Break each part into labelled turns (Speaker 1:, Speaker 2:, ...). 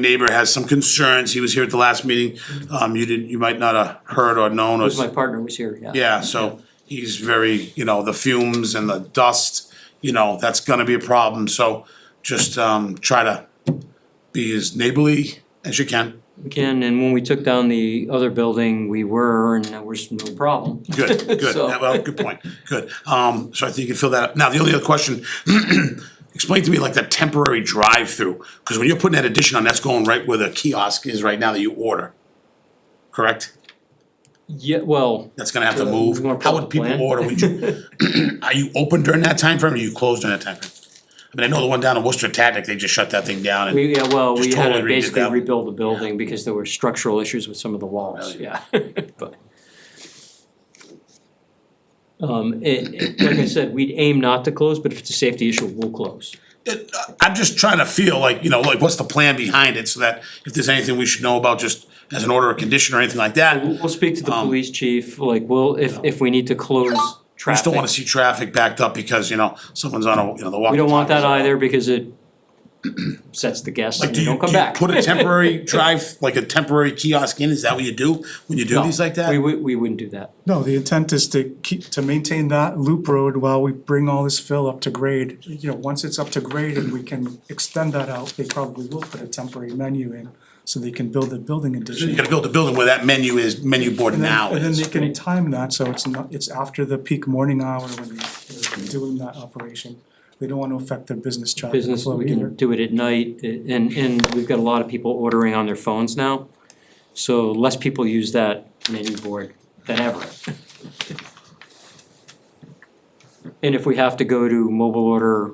Speaker 1: neighbor has some concerns, he was here at the last meeting, um, you didn't, you might not have heard or known or,
Speaker 2: My partner was here, yeah.
Speaker 1: yeah, so he's very, you know, the fumes and the dust, you know, that's gonna be a problem, so just, um, try to be as neighborly as you can,
Speaker 2: We can, and when we took down the other building, we were, and there was no problem.
Speaker 1: good, good,
Speaker 2: So-
Speaker 1: Yeah, well, good point, good, um, so I think you can fill that up, now, the only other question, explain to me like the temporary drive-through, cause when you're putting that addition on, that's going right where the kiosk is right now that you order, correct?
Speaker 2: Yeah, well,
Speaker 1: that's gonna have to
Speaker 2: Uh,
Speaker 1: move,
Speaker 2: you wanna
Speaker 1: how
Speaker 2: pull
Speaker 1: would
Speaker 2: up
Speaker 1: people
Speaker 2: the plan?
Speaker 1: order, would you, are you open during that time frame? or are you closed during that time frame? I mean, I know the one down in Worcester Tactic, they just shut that thing down and,
Speaker 2: we, yeah, well, we
Speaker 1: Just
Speaker 2: had to
Speaker 1: totally redid
Speaker 2: basically
Speaker 1: that.
Speaker 2: rebuild the building because there were structural issues with some of the walls, yeah. But Um, it, it- like I said, we'd aim not to close, but if it's a safety issue, we'll close.
Speaker 1: uh, I'm just trying to feel like, you know, like, what's the plan behind it, so that if there's anything we should know about, just as an order of condition or anything like that,
Speaker 2: We'll, we'll speak to the police chief, like, we'll, if, if Um, we need to close
Speaker 1: I
Speaker 2: traffic.
Speaker 1: just don't wanna see traffic backed up because, you know, someone's on a, you know, the walk.
Speaker 2: We don't want that either because it sets the guests and
Speaker 1: Do
Speaker 2: they
Speaker 1: you,
Speaker 2: don't come
Speaker 1: do you
Speaker 2: back.
Speaker 1: put a temporary drive, like a temporary kiosk in, is that what you do, when you do
Speaker 2: No,
Speaker 1: these like that?
Speaker 2: We would, we wouldn't do that.
Speaker 3: No, the intent is to keep, to maintain that loop road while we bring all this fill up to grade. You know, once it's up to grade and we can extend that out, they probably will put a temporary menu in so they can build a building
Speaker 1: You
Speaker 3: addition.
Speaker 1: gotta build a building where that menu is, menu board
Speaker 3: And then-
Speaker 1: now
Speaker 3: And then
Speaker 1: is,
Speaker 3: they can time that, so it's not, it's after the peak morning hour when they're doing that operation. They don't wanna affect their business traffic
Speaker 2: Business,
Speaker 3: flow
Speaker 2: we can
Speaker 3: either.
Speaker 2: do it at night a- and, and we've got a lot of people ordering on their phones now. So less people use that menu board than ever. And if we have to go to mobile order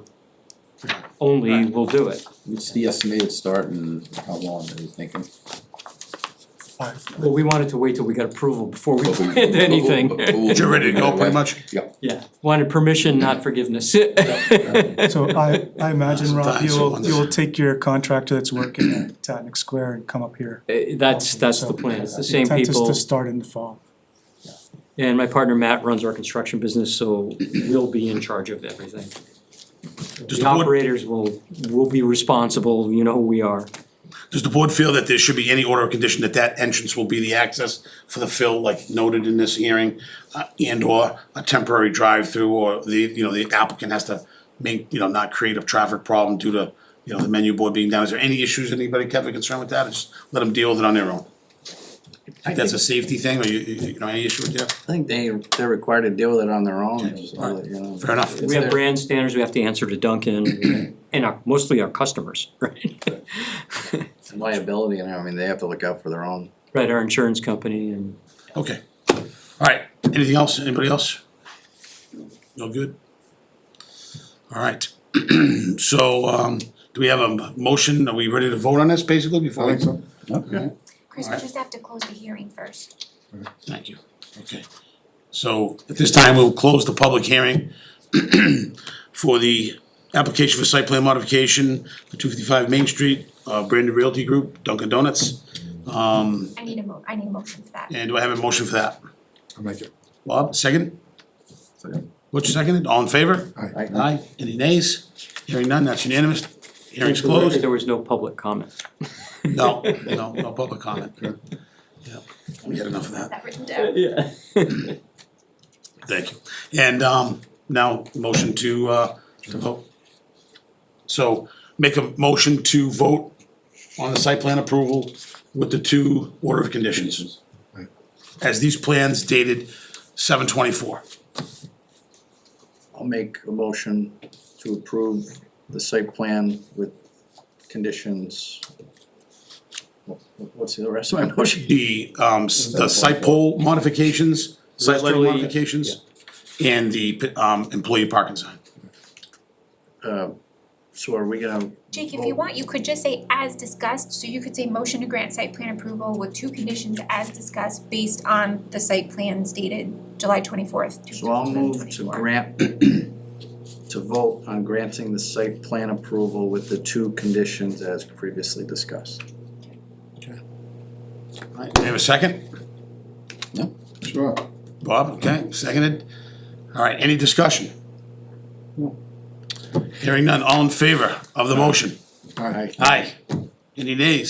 Speaker 2: only, we'll do it.
Speaker 4: What's the estimated start and how long are you thinking?
Speaker 2: Well, we wanted to wait till we got approval before we did anything.
Speaker 1: you're ready to go pretty much?
Speaker 4: Yeah.
Speaker 2: Yeah, wanted permission, not forgiveness.
Speaker 3: So I, I imagine, Rob,
Speaker 1: Sometimes
Speaker 3: you will,
Speaker 1: someone's-
Speaker 3: you will take your contractor that's working at Tatnick Square and come up here.
Speaker 2: Eh, That's, that's the plan, it's the same
Speaker 3: Intent is
Speaker 2: people,
Speaker 3: to start in the fall.
Speaker 2: and my partner Matt runs our construction business, so we'll be in charge of everything.
Speaker 1: Does
Speaker 2: The
Speaker 1: board-
Speaker 2: operators will, will be responsible, you know who we are.
Speaker 1: Does the board feel that there should be any order of condition that that entrance will be the access for the fill, like noted in this hearing? Uh, and or a temporary drive-through, or the, you know, the applicant has to make, you know, not create a traffic problem due to, you know, the menu board being down, is there any issues, anybody have a concern with that, or just let them deal with it on their own? Think that's a safety thing, or you, you you know, any issue with that?
Speaker 4: I think they, they're required to deal with it on their own, so, you know.
Speaker 1: Fair enough.
Speaker 2: We have brand standards, we have to answer to Duncan and our, mostly our customers, right?
Speaker 4: Liability, and I mean, they have to look out for their own.
Speaker 2: Right, our insurance company and,
Speaker 1: Okay, alright, anything else, anybody else? No good? Alright, so, um, do we have a m- motion, are we ready to vote on this basically before? we-
Speaker 4: Okay.
Speaker 5: Chris, we just have to close the hearing first.
Speaker 1: Thank you, okay. So, at this time, we'll close the public hearing for the application for site plan modification for two fifty-five Main Street, uh, Brandon Realty Group, Dunkin' Donuts.
Speaker 5: I need a mo- I need a motion for that.
Speaker 1: And do I have a motion for that?
Speaker 6: I'll make it.
Speaker 1: Bob, second? What's seconded, all in favor?
Speaker 4: Aye.
Speaker 1: Aye, any nays? Hearing none, that's unanimous. Hearing's closed.
Speaker 2: there was no public comment.
Speaker 1: No, no, no public comment. Yeah, We had enough of
Speaker 5: Is
Speaker 1: that,
Speaker 5: that written down?
Speaker 2: Yeah.
Speaker 1: thank you. And um now, motion to uh to vote. So make a motion to vote on the site plan approval with the two order of conditions.
Speaker 6: Right.
Speaker 1: As these plans dated seven twenty-four.
Speaker 4: I'll make a motion to approve the site plan with conditions. What- What's the rest of my motion?
Speaker 1: the um s- the site pole modifications, site lighting
Speaker 2: Westerly,
Speaker 1: modifications, and the p- um employee parking sign.
Speaker 4: Uh, so are we gonna?
Speaker 5: Jake, if you want, you could just say as discussed, so you could say motion to grant site plan approval with two conditions as discussed based on the site plans dated July twenty-fourth, two
Speaker 4: So I'll
Speaker 5: thousand and
Speaker 4: move to
Speaker 5: twenty-four.
Speaker 4: grant, to vote on granting the site plan approval with the two conditions as previously discussed.
Speaker 1: Alright, do we have a second?
Speaker 6: Sure.
Speaker 1: Bob, okay, seconded. Alright, any discussion? Hearing none, all in favor of the motion?
Speaker 4: All right.
Speaker 1: Aye. Any nays?